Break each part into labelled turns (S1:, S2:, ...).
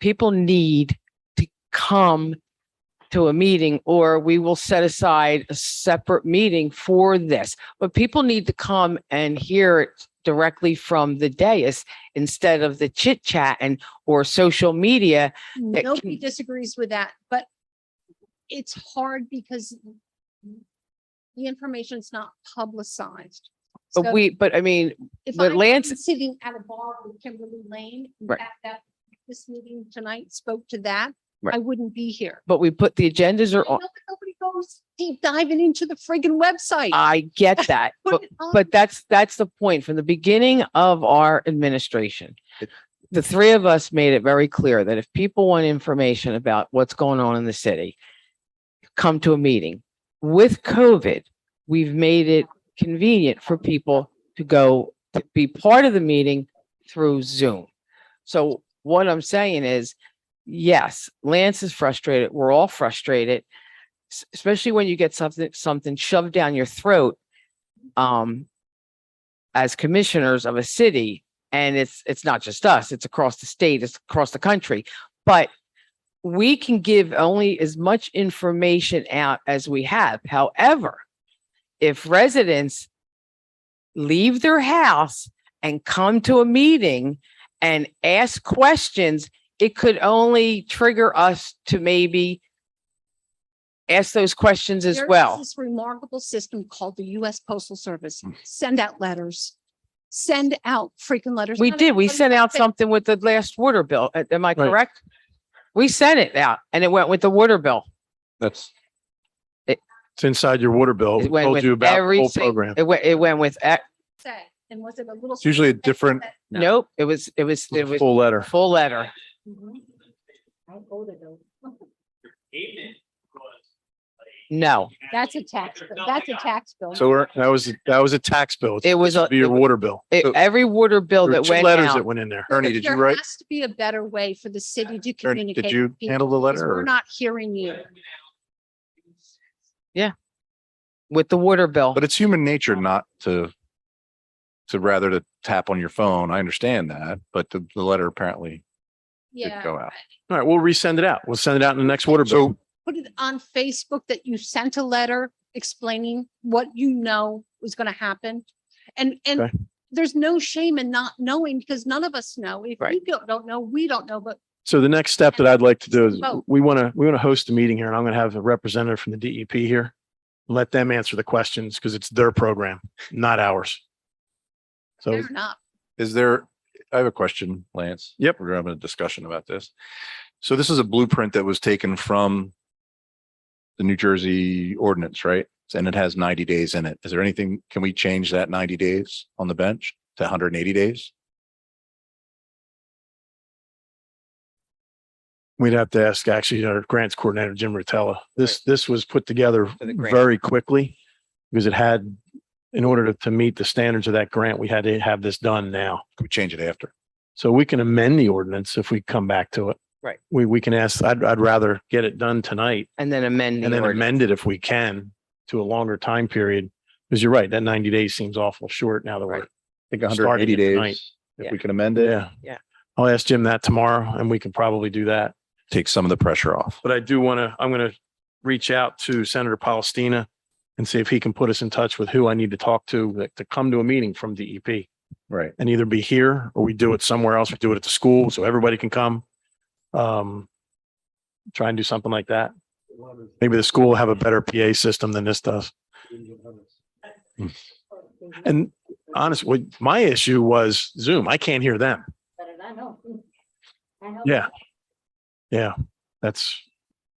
S1: people need to come to a meeting or we will set aside a separate meeting for this. But people need to come and hear it directly from the dais instead of the chit chat and or social media. that
S2: Nobody
S1: can-
S2: disagrees with that, but it's hard because the information's not publicized. So
S1: But we, but I mean,
S2: if
S1: but
S2: I'm
S1: Lance-
S2: Sitting at a bar with Kimberly Lane, in
S1: Right.
S2: fact, that, this meeting tonight spoke to that,
S1: Right.
S2: I wouldn't be here.
S1: but we put the agendas are on.
S2: Nobody nobody goes deep diving into the friggin' website.
S1: I get that,
S2: Put
S1: Ah, but
S2: it on
S1: But that's, that's the point. From the beginning of our administration, the three of us made it very clear that if people want information about what's going on in the city, come to a meeting. With COVID, we've made it convenient for people to go to be part of the meeting through Zoom. So what I'm saying is, yes, Lance is frustrated. We're all frustrated, s- especially when you get something, something shoved down your throat um, as commissioners of a city, and it's, it's not just us, it's across the state, it's across the country. But we can give only as much information out as we have. However, if residents leave their house and come to a meeting and ask questions, it could only trigger us to maybe ask those questions as
S2: There is
S1: well. Hmm.
S2: This remarkable system called the US Postal Service. Send out letters. Send out freaking letters.
S1: We
S2: Not
S1: did. We
S2: everybody
S1: sent out
S2: does it.
S1: something with the last water bill. A- Am I
S3: Right.
S1: correct? We sent it out and it went with the water bill.
S3: That's.
S1: It-
S3: It's inside your water bill.
S1: It
S3: We
S1: went
S3: told
S1: with
S3: you about the
S1: every
S3: whole
S1: single-
S3: program.
S1: It went, it went with, e-
S2: Say, And was it a little?
S3: It's usually a different
S4: No.
S1: nope, it was, it was, it was
S3: full letter.
S1: full letter.
S2: Mhm. I go to those.
S1: No,
S2: That's a tax, bill. that's a tax bill.
S3: So we're, that was, that was a tax bill. It's
S1: it was, a
S3: be your water bill.
S1: it-
S3: So
S1: every water bill
S3: there were
S1: that
S3: two
S1: went
S3: letters that
S1: out.
S3: went in there.
S2: But
S3: Ernie, did you
S2: there
S3: write?
S2: Has to be a better way for the city to
S3: Ernie,
S2: communicate.
S3: did
S2: with
S3: you
S2: people,
S3: handle the
S2: 'cause
S3: letter
S2: We're
S3: or?
S2: not hearing you.
S1: With the water bill.
S3: But it's human nature not to, to rather to tap on your phone. I understand that, but the, the letter apparently didn't
S2: Yeah.
S3: go out. All right, we'll resend it out. We'll send it out in the next water bill.
S2: Put it on Facebook that you sent a letter explaining what you know was going to happen. And,
S3: Okay.
S2: and there's no shame in not knowing because none of us know. If
S1: Right.
S2: you don't, don't know, we don't know, but
S3: So the next step that I'd like to do is
S2: Vote.
S3: we want to, we want to host a meeting here and I'm going to have a representative from the DEP here. Let them answer the questions because it's their program, not ours. So
S2: fair enough.
S3: is there, I have a question, Lance. Yep. We're having a discussion about this. So this is a blueprint that was taken from the New Jersey ordinance, right? And it has ninety days in it. Is there anything, can we change that ninety days on the bench to hundred and eighty days? We'd have to ask actually our grants coordinator, Jim Rotella. This, this was put together very quickly because it had, in order to, to meet the standards of that grant, we had to have this done now.
S5: Can we change it after?
S3: So we can amend the ordinance if we come back to it.
S1: Right.
S3: We, we can ask, I'd, I'd rather get it done tonight
S1: And then amend
S3: and
S1: the
S3: then
S1: order.
S3: amend it if we can to a longer time period. Cause you're right, that ninety days seems awful short now that we're,
S1: Right.
S3: think
S5: Hundred and eighty days,
S1: Yeah.
S5: if we can amend it,
S3: yeah.
S1: Yeah.
S3: I'll ask Jim that tomorrow and we can probably do that.
S5: take some of the pressure off.
S3: But I do want to, I'm going to reach out to Senator Palestina and see if he can put us in touch with who I need to talk to, like, to come to a meeting from E DEP.
S5: Right.
S3: and either be here or we do it somewhere else. We do it at the school so everybody can come. Um, try and do something like that. Maybe the school will have a better PA system than this does. And honestly, my issue was Zoom. I can't hear them. Yeah. Yeah, that's,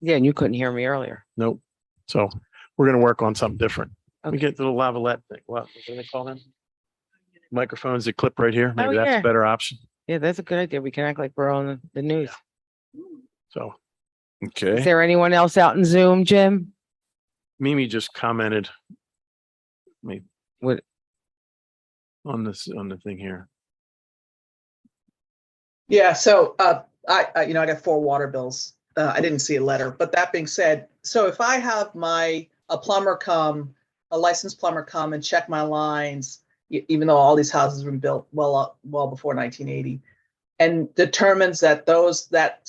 S1: Yeah, and you couldn't hear me earlier.
S3: nope. So we're gonna work on something different. We
S1: Okay.
S3: get to the lavalette thing. What, what do they call them? Microphones that clip right here.
S1: Oh,
S3: Maybe that's
S1: yeah.
S3: a better option.
S1: Yeah, that's a good idea. We can act like we're on the news.
S3: So
S1: Is
S5: Okay.
S1: there anyone else out in Zoom, Jim?
S3: Mimi just commented. Me.
S1: What?
S3: On this, on the thing here.
S6: Yeah, so, uh, I, I, you know, I got four water bills. Uh, I didn't see a letter, but that being said, so if I have my, a plumber come, a licensed plumber come and check my lines, e- even though all these houses were built well, up well before nineteen eighty, and determines that those, that